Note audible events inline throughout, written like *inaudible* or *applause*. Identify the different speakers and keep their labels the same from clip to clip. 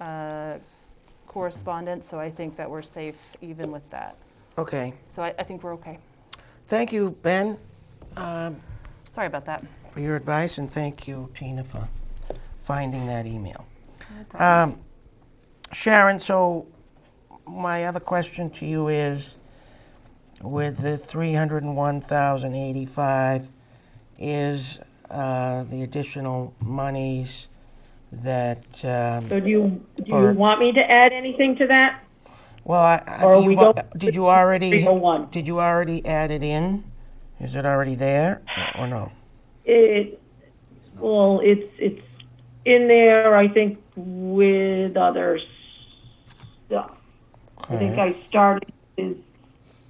Speaker 1: uh, correspondence, so I think that we're safe even with that.
Speaker 2: Okay.
Speaker 1: So I, I think we're okay.
Speaker 2: Thank you, Ben, um,
Speaker 1: Sorry about that.
Speaker 2: for your advice, and thank you, Tina, for finding that email. Um, Sharon, so my other question to you is, with the 301,085, is uh, the additional monies that, um,
Speaker 3: So do you, do you
Speaker 2: Or-
Speaker 3: want me to add anything to that?
Speaker 2: well, I- I,
Speaker 3: Or we oh
Speaker 2: you've
Speaker 3: go-
Speaker 2: al- did you already,
Speaker 3: 301.
Speaker 2: did you already add it in? Is it already there, or no?
Speaker 3: It, well, it's, it's in there, I think, with other stuff. I think I started with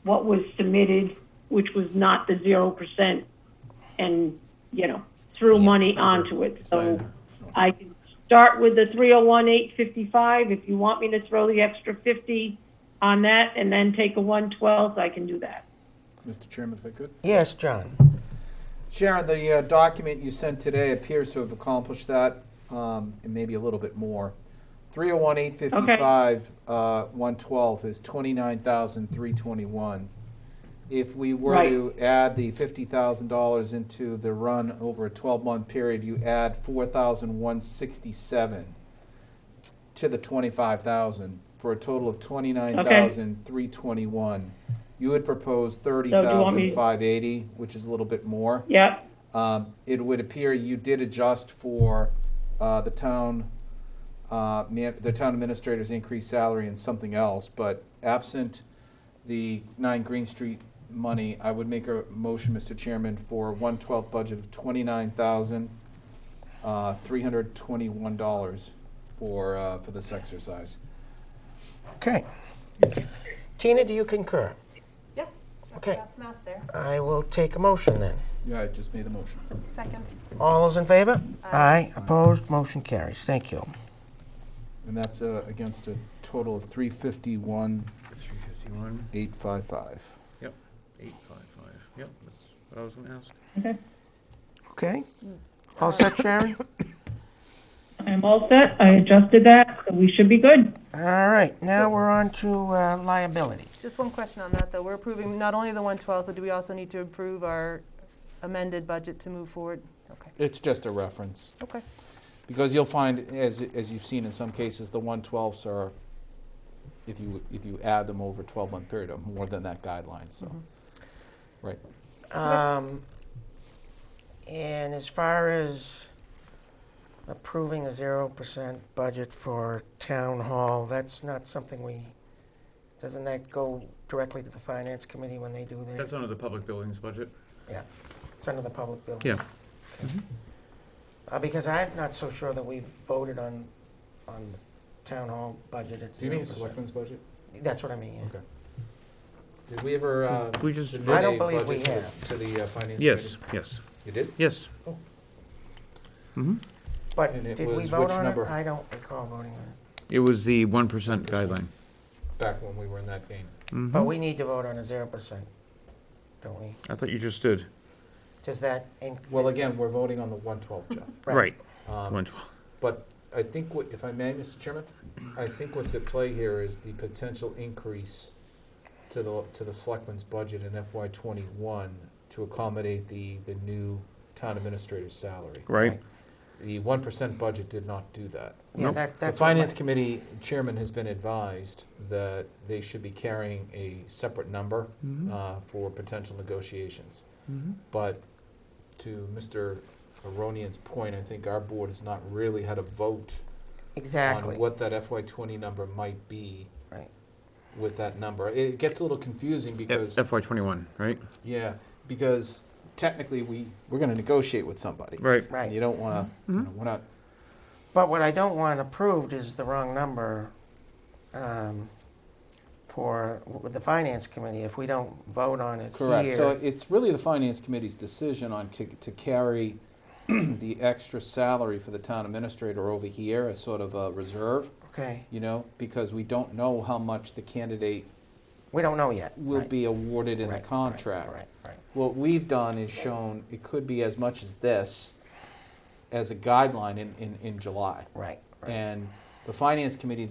Speaker 3: what was submitted, which was not the zero percent, and, you know, threw money onto it. So I can start with the three oh one eight fifty-five, if you want me to throw the extra fifty on that and then take a one twelfth, I can do that.
Speaker 4: Mr. Chairman, if I could?
Speaker 2: Yes, John.
Speaker 4: Sharon, the uh, document you sent today appears to have accomplished that, um, and maybe a little bit more. 301, 855, uh, 112 is 29,321. If we were
Speaker 3: Right.
Speaker 4: to add the $50,000 into the run over a 12-month period, you add 4,167 to the 25,000, for a total of 29,321. You would propose
Speaker 3: you want me-
Speaker 4: 30,580, which is a little bit more.
Speaker 3: Yep,
Speaker 4: Um, It would appear you did adjust for uh, the town, uh, man- the town administrator's increased salary and something else, but absent the 9 Green Street money, I would make a motion, Mr. Chairman, for 112 budget of uh, $29,321 for, uh, for this exercise.
Speaker 2: Okay. Tina, do you concur?
Speaker 5: Yeah.
Speaker 2: Okay,
Speaker 5: That's not there.
Speaker 2: I will take a motion then.
Speaker 4: Yeah, I just made the motion.
Speaker 5: Second.
Speaker 2: All those in favor? Aye. Opposed? Motion carries. Thank you.
Speaker 4: And that's uh, against a total of 351,
Speaker 6: 351,
Speaker 4: 855.
Speaker 6: yep, 855, yep, that's what I was going to ask.
Speaker 2: Okay? All set, *coughs* Sharon?
Speaker 3: I'm all set, I adjusted that, so we should be good.
Speaker 2: All right, now we're on to uh, liability.
Speaker 5: Just one question on that, though. We're approving not only the 112, but do we also need to approve our amended budget to move forward? Okay,
Speaker 4: It's just a reference.
Speaker 5: okay.
Speaker 4: Because you'll find, as, as you've seen in some cases, the one twelfths are, if you, if you add them over a twelve-month period, are more than that guideline, so. Right.
Speaker 2: Um, And as far as approving a 0% budget for town hall, that's not something we, doesn't that go directly to the finance committee when they do their,
Speaker 6: That's under the public buildings budget?
Speaker 2: it's under the public building?
Speaker 6: Yeah.
Speaker 2: Uh, Because I'm not so sure that we voted on, on town hall budget at 0%.
Speaker 4: budget?
Speaker 2: That's what I mean, yeah.
Speaker 4: Okay. Did we ever, uh,
Speaker 6: We just-
Speaker 4: submit
Speaker 2: I don't
Speaker 4: a
Speaker 2: believe
Speaker 4: budget
Speaker 2: we
Speaker 4: to the-
Speaker 2: have.
Speaker 4: To the uh, finance committee?
Speaker 6: Yes, yes,
Speaker 4: You did?
Speaker 6: yes.
Speaker 4: Oh.
Speaker 6: Mhm.
Speaker 2: But
Speaker 4: And it
Speaker 2: did we
Speaker 4: was
Speaker 2: vote
Speaker 4: which
Speaker 2: on it?
Speaker 4: number?
Speaker 2: I don't recall voting on it.
Speaker 6: It was the 1% guideline.
Speaker 4: Back when we were in that game.
Speaker 2: But
Speaker 6: Mhm.
Speaker 2: we need to vote on a 0%, don't we?
Speaker 6: I thought you just did.
Speaker 2: Does that, in-
Speaker 4: Well, again, we're voting on the one twelve, Jeff.
Speaker 6: Right,
Speaker 4: Um,
Speaker 6: 112.
Speaker 4: But I think what, if I may, Mr. Chairman, I think what's at play here is the potential increase to the, to the selectmen's budget in FY twenty-one to accommodate the, the new town administrator's salary.
Speaker 6: right?
Speaker 4: The one percent budget did not do that.
Speaker 2: Yeah,
Speaker 6: Nope.
Speaker 2: that,
Speaker 4: The
Speaker 2: that's what my-
Speaker 4: finance committee chairman has been advised that they should be carrying a separate number
Speaker 6: Mhm.
Speaker 4: uh, for potential negotiations.
Speaker 6: Mhm.
Speaker 4: But to Mr. Aronian's point, I think our board has not really had a vote
Speaker 2: Exactly.
Speaker 4: on what that FY twenty number might be
Speaker 2: Right.
Speaker 4: with that number. It gets a little confusing because,
Speaker 6: FY '21, right?
Speaker 4: yeah, because technically we, we're gonna negotiate with somebody.
Speaker 6: Right.
Speaker 4: And you
Speaker 2: Right. Mm-hmm.
Speaker 4: don't wanna, you
Speaker 6: Mhm.
Speaker 4: know, we're not,
Speaker 2: But what I don't want approved is the wrong number um, for, with the finance committee, if we don't vote on it
Speaker 4: correct. So
Speaker 2: here.
Speaker 4: it's really the finance committee's decision on to, to carry *clears throat* the extra salary for the town administrator over here as sort of a reserve,
Speaker 2: Okay,
Speaker 4: you know, because we don't know how much the candidate
Speaker 2: we don't know yet.
Speaker 4: will
Speaker 2: Right.
Speaker 4: be awarded in
Speaker 2: Right,
Speaker 4: the
Speaker 2: right,
Speaker 4: contract.
Speaker 2: Right, right.
Speaker 4: what we've done is shown it could be as much as this as a guideline in, in, in July.
Speaker 2: Right, right.
Speaker 4: And the finance committee